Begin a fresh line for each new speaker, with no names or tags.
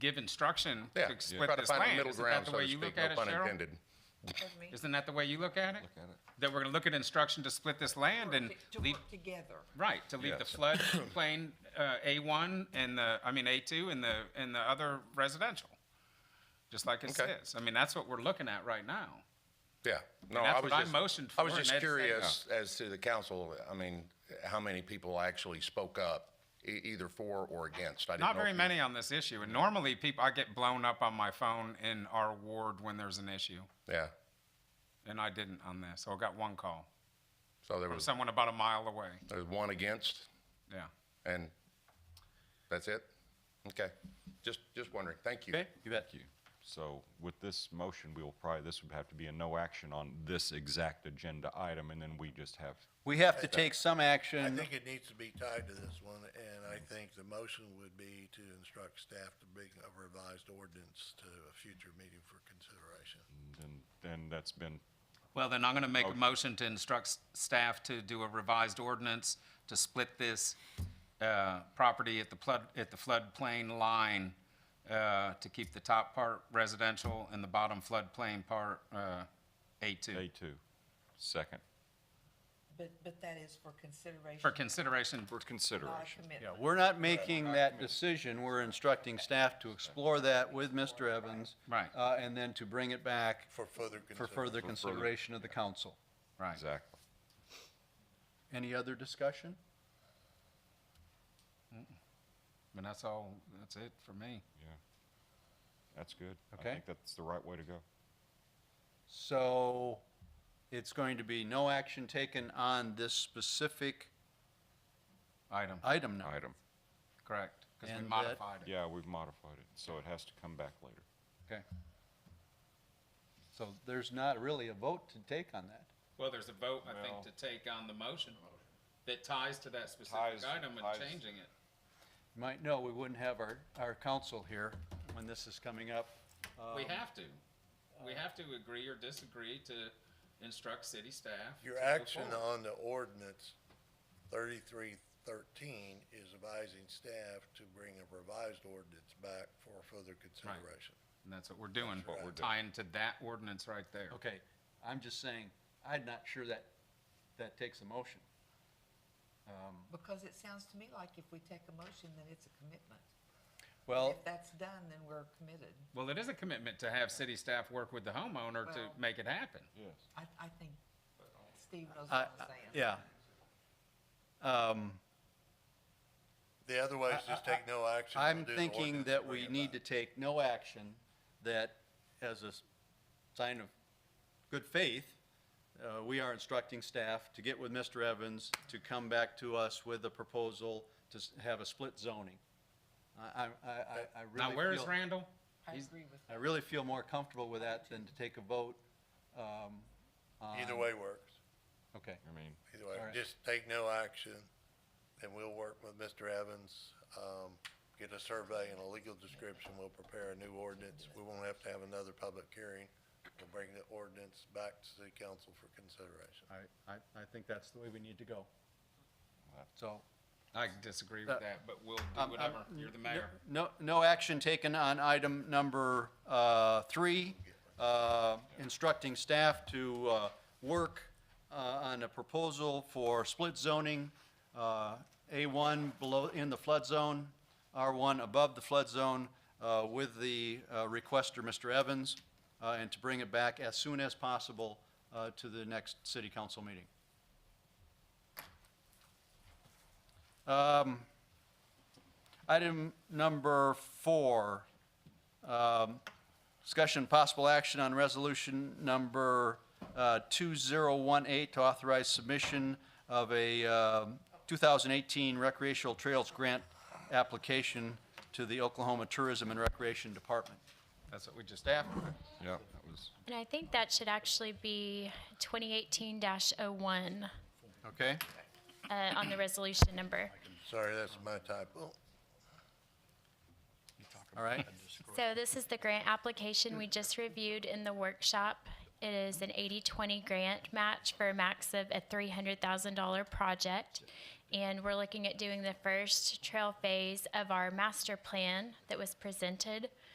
give instruction
Yeah,
to
try
split
to
this
find a
land.
middle
Isn't that
ground,
the
so
way
to
you look
speak,
at
no
it,
pun
Cheryl?
intended.
Pardon me?
Isn't that the way you look at it?
at it.
That we're gonna look at instruction to split this land and
To
leave,
work together.
right, to leave the
Yes.
floodplain, uh, A1 and the, I mean, A2 and the, and the other residential. Just like it
Okay.
says. I mean, that's what we're looking at right now.
Yeah,
And
no,
that's
I was
what I
just.
motioned
I was
for, and
just
that's-
curious as to the council, I mean, how many people actually spoke up, e- either for or against? I didn't
Not
know
very
if you-
many on this issue, and normally people, I get blown up on my phone in our ward when there's an issue,
Yeah,
and I didn't on this, so I got one call
so there
from
was,
someone about a mile away,
there was one against,
yeah.
and that's it? Okay, just, just wondering, thank you.
Okay.
Thank you. So with this motion, we will probably, this would have to be a no action on this exact agenda item, and then we just have,
We have to take some
I
action.
think it needs to be tied to this one, and I think the motion would be to instruct staff to bring a revised ordinance to a future meeting for consideration.
and, and that's been,
Well, then I'm gonna make a motion to instruct s- staff to do a revised ordinance to split this, uh, property at the flood, at the floodplain line, uh, to keep the top part residential and the bottom floodplain part, uh, A2,
A2, second,
But, but that is for consideration.
for consideration
for
Not
consideration.
a commitment.
Yeah, We're not making that decision. We're instructing staff to explore that with Mr. Evans.
Right.
uh, And then to bring it back
For further
for
consideration.
further consideration of the council.
Right.
Exactly.
Any other discussion?
And that's all, that's it for me.
That's good. I
Okay.
think that's the right way to go.
So it's going to be no action taken on this specific
Item,
item now.
Item.
correct, because we
And that-
modified it.
Yeah, we've modified it, so it has to come back later.
Okay. So there's not really a vote to take on that.
Well, there's a vote, I think,
Well-
to take on the motion that ties to that specific
Ties-
item and
ties-
changing it.
You might know, we wouldn't have our, our council here when this is coming up. Uh, Um,
We have to. We have to agree or disagree to instruct city staff.
Your
to go
action
forward.
on the ordinance thirty-three thirteen is advising staff to bring a revised ordinance back for further consideration.
And that's what we're doing,
What we're doing.
tying to that ordinance right there.
Okay, I'm just saying, I'm not sure that, that takes a motion.
Because it sounds to me like if we take a motion, then it's a commitment.
Well,
If that's done, then we're committed.
Well, it is a commitment to have city staff work with the homeowner to
Well-
make it happen.
Yes.
I, I think Steve knows
I,
what
I-
I'm saying.
yeah. Um,
The other way is just take no action. but
I'm
do the
thinking
ordinance
that
and
we
bring it
need to
back.
take no action, that as a s- sign of good faith, uh, we are instructing staff to get with Mr. Evans to come back to us with a proposal to s- have a split zoning. I, I, I, I- I really
Now, where is
feel-
Randall?
I agree with
I really feel more comfortable with that than to take a vote. um,
Either
on-
way works.
Okay,
I mean,
Either way,
All right.
just take no action, and we'll work with Mr. Evans, um, get a survey and a legal description, we'll prepare a new ordinance. We won't have to have another public hearing, we'll bring the ordinance back to city council for consideration.
I, I, I think that's the way we need to go. So.
I disagree with that, but we'll do
um,
whatever.
um,
You're the
n-
mayor.
Uh, No, no action taken on item number uh, three, uh, instructing staff to uh, work uh, on a proposal for split zoning, uh, A1 below, in the flood zone, R1 above the flood zone, uh, with the uh, requester, Mr. Evans, uh, and to bring it back as soon as possible uh, to the next city council meeting. Um, Item number four, um, discussion possible action on resolution number uh, 2018 to authorize submission of a um, 2018 recreational trails grant application to the Oklahoma Tourism and Recreation Department.
That's what we just.
Staff,
yeah, that was.
And I think that should actually be 2018-01
okay?
uh, on the resolution number.
Sorry, that's my typo.
All right,
So this is the grant application we just reviewed in the workshop. It is an 80-20 grant match for a max of a $300,000 project. And we're looking at doing the first trail phase of our master plan that was presented.